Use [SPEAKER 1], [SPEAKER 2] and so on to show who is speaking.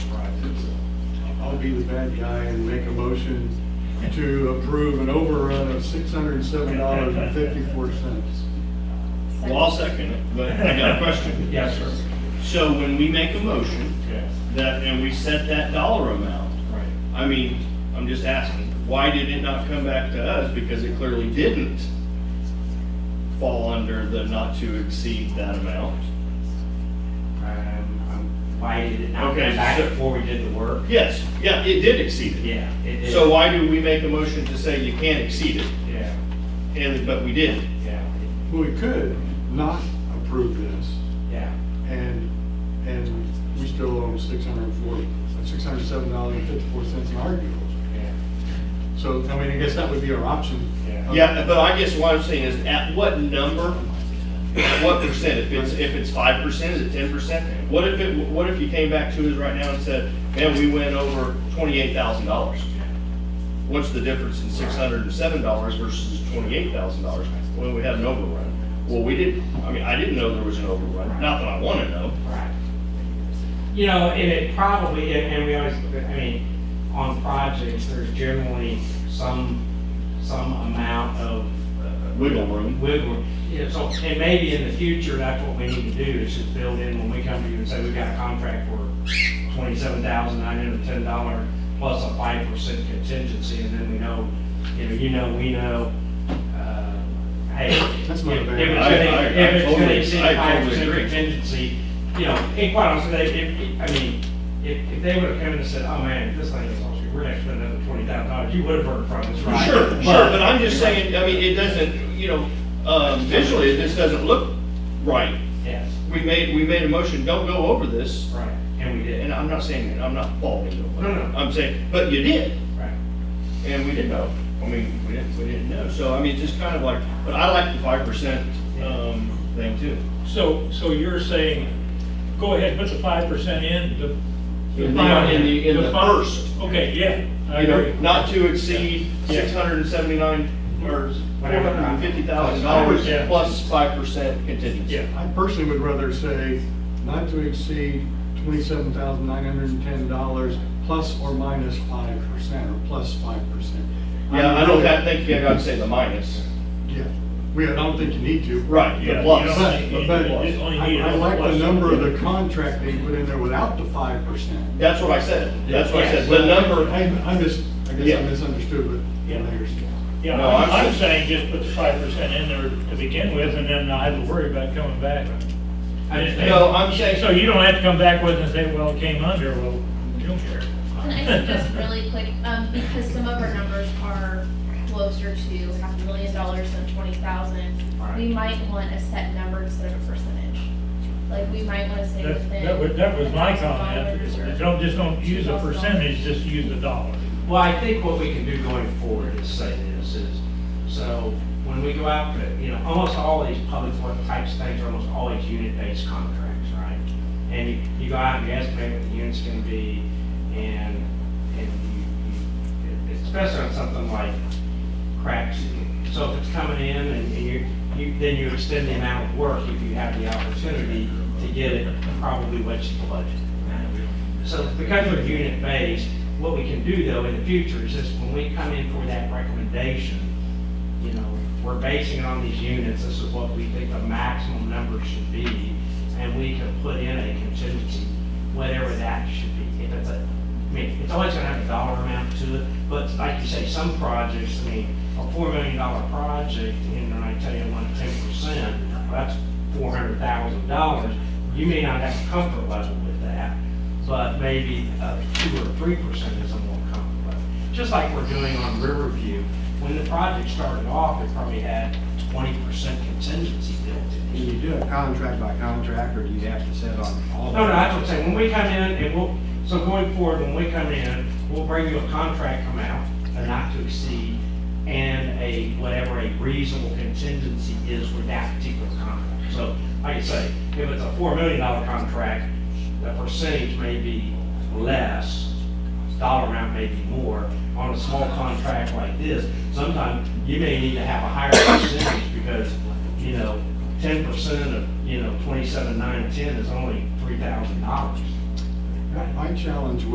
[SPEAKER 1] be the bad guy and make a motion to approve an overrun of six hundred and seven dollars and fifty-four cents.
[SPEAKER 2] Well, I'll second it, but I got a question.
[SPEAKER 3] Yes, sir.
[SPEAKER 2] So when we make a motion
[SPEAKER 3] Yes.
[SPEAKER 2] that, and we set that dollar amount,
[SPEAKER 3] Right.
[SPEAKER 2] I mean, I'm just asking, why did it not come back to us? Because it clearly didn't fall under the not to exceed that amount.
[SPEAKER 3] Um, um, Why did it not
[SPEAKER 2] Okay,
[SPEAKER 3] come back
[SPEAKER 2] so-
[SPEAKER 3] before we did the work?
[SPEAKER 2] Yes, yeah, it did exceed it.
[SPEAKER 3] Yeah. it is.
[SPEAKER 2] So why do we make a motion to say you can't exceed it,
[SPEAKER 3] Yeah,
[SPEAKER 2] and, but we did?
[SPEAKER 3] yeah,
[SPEAKER 1] Well, we could not approve this
[SPEAKER 3] yeah.
[SPEAKER 1] and, and we still owe six hundred and forty, six hundred and seven dollars and fifty-four cents in our deals.
[SPEAKER 3] Yeah.
[SPEAKER 1] So, I mean, I guess that would be our option.
[SPEAKER 3] Yeah.
[SPEAKER 2] Yeah, but I guess what I'm saying is, at what number, at what percent, if it's, if it's five percent, is it ten percent? What if it, what if you came back to us right now and said, man, we went over twenty-eight thousand dollars? What's the difference in six hundred and seven dollars versus twenty-eight thousand dollars? Well, we had an overrun. Well, we didn't, I mean, I didn't know there was an overrun, not that I wanna know.
[SPEAKER 3] Right. You know, and it probably, and and we always, I mean, on projects, there's generally some, some amount of uh,
[SPEAKER 2] Wiggle room.
[SPEAKER 3] wiggle. Yeah, so, and maybe in the future, that's what we need to do, is just build in when we come to you and say, we've got a contract for twenty-seven thousand nine hundred and ten dollar plus a five percent contingency, and then we know, you know, you know, we know, uh, hey.
[SPEAKER 1] That's
[SPEAKER 3] if-
[SPEAKER 1] my
[SPEAKER 3] if
[SPEAKER 1] bad.
[SPEAKER 3] it's
[SPEAKER 2] I-
[SPEAKER 3] gonna-
[SPEAKER 2] I- I
[SPEAKER 3] If it's gonna
[SPEAKER 2] totally-
[SPEAKER 3] exceed
[SPEAKER 2] I
[SPEAKER 3] five
[SPEAKER 2] totally
[SPEAKER 3] percent
[SPEAKER 2] agree.
[SPEAKER 3] contingency, you know, and quite honestly, they, if, I mean, if, if they would've come in and said, oh man, this thing is, awesome, we're gonna spend another twenty thousand dollars, you would've heard from us, right?
[SPEAKER 2] Sure, sure, but I'm just saying, I mean, it doesn't, you know, um, visually, this doesn't look right.
[SPEAKER 3] Yes.
[SPEAKER 2] We made, we made a motion, don't go over this,
[SPEAKER 3] Right, and we did,
[SPEAKER 2] and I'm not saying, that I'm not faulting you.
[SPEAKER 3] No, no.
[SPEAKER 2] I'm saying, but you did,
[SPEAKER 3] right.
[SPEAKER 2] and we didn't know. I mean, we didn't, we didn't know, so I mean, just kind of like, but I like the five percent, um, thing too.
[SPEAKER 4] So, so you're saying, go ahead, put the five percent in, the.
[SPEAKER 2] In the, in the, in the
[SPEAKER 4] fi-
[SPEAKER 2] first,
[SPEAKER 4] Okay, yeah, I
[SPEAKER 2] you know,
[SPEAKER 4] agree.
[SPEAKER 2] not to exceed
[SPEAKER 4] Yeah.
[SPEAKER 2] six hundred and seventy-nine, or four
[SPEAKER 3] Whatever.
[SPEAKER 2] hundred and fifty thousand dollars
[SPEAKER 4] Yeah.
[SPEAKER 2] plus five percent contingency.
[SPEAKER 4] Yeah,
[SPEAKER 1] I personally would rather say not to exceed twenty-seven thousand nine hundred and ten dollars plus or minus five percent or plus five percent.
[SPEAKER 2] Yeah, I don't have- think you gotta say the minus.
[SPEAKER 1] Yeah, we, I don't think you need to.
[SPEAKER 2] Right,
[SPEAKER 4] Yeah,
[SPEAKER 2] the
[SPEAKER 4] you
[SPEAKER 2] plus.
[SPEAKER 1] But,
[SPEAKER 4] You-
[SPEAKER 1] but
[SPEAKER 4] you only
[SPEAKER 1] I
[SPEAKER 4] need it
[SPEAKER 1] I
[SPEAKER 4] on the
[SPEAKER 1] like the
[SPEAKER 4] plus.
[SPEAKER 1] number of the contract they put in there without the five percent.
[SPEAKER 2] That's what I said, that's what I said,
[SPEAKER 4] Yeah.
[SPEAKER 2] the number.
[SPEAKER 1] I, I mis, I guess
[SPEAKER 2] Yeah.
[SPEAKER 1] I misunderstood what the
[SPEAKER 4] Yeah.
[SPEAKER 1] mayor said.
[SPEAKER 4] yeah,
[SPEAKER 2] No,
[SPEAKER 4] I'm,
[SPEAKER 2] I'm-
[SPEAKER 4] I'm saying just put the five percent in there to begin with, and then I have to worry about coming back.
[SPEAKER 2] No, I'm saying-
[SPEAKER 4] So you don't have to come back with it and say, well, it came under, well, you don't care.
[SPEAKER 5] Can I suggest really quick, um, because some of our numbers are closer to half a million dollars than twenty thousand, we might want a set number instead of a percentage. Like, we might wanna say
[SPEAKER 4] That,
[SPEAKER 5] within.
[SPEAKER 4] that was, that was my comment,
[SPEAKER 5] $1,000 or-
[SPEAKER 4] don't, just don't use a percentage, just use a dollar.
[SPEAKER 3] Well, I think what we can do going forward is say this is, so when we go out, to, you know, almost all these public work types things are almost always unit-based contracts, right? And you, you go out and you estimate what the unit's gonna be and, and you, you, especially on something like cracks. So if it's coming in and and you, you, then you extend the amount of work if you have the opportunity to get it probably what you budget. So because we're unit based, what we can do though in the future is just when we come in for that recommendation, you know, we're basing it on these units, this is what we think the maximum number should be, and we can put in a contingency, whatever that should be. If it's a, I mean, it's always gonna have a dollar amount to it, but like you say, some projects, I mean, a four million dollar project, and I tell you, one ten percent, that's four hundred thousand dollars. You may not have a comfort level with that, but maybe uh, two or three percent is a more comfortable level. Just like we're doing on Riverview, when the project started off, it probably had twenty percent contingency built in.
[SPEAKER 6] Can you do it contract by contract, or do you have to set on all?
[SPEAKER 3] No, no, that's what I'm saying, when we come in and we'll, so going forward, when we come in, we'll bring you a contract amount, a not to exceed, and a, whatever a reasonable contingency is for that particular contract. So, like I say, if it's a four million dollar contract, the percentage may be less, dollar amount may be more. On a small contract like this, sometimes you may need to have a higher percentage because, you know, ten percent of, you know, twenty-seven, nine, ten is only three thousand dollars.
[SPEAKER 1] My challenge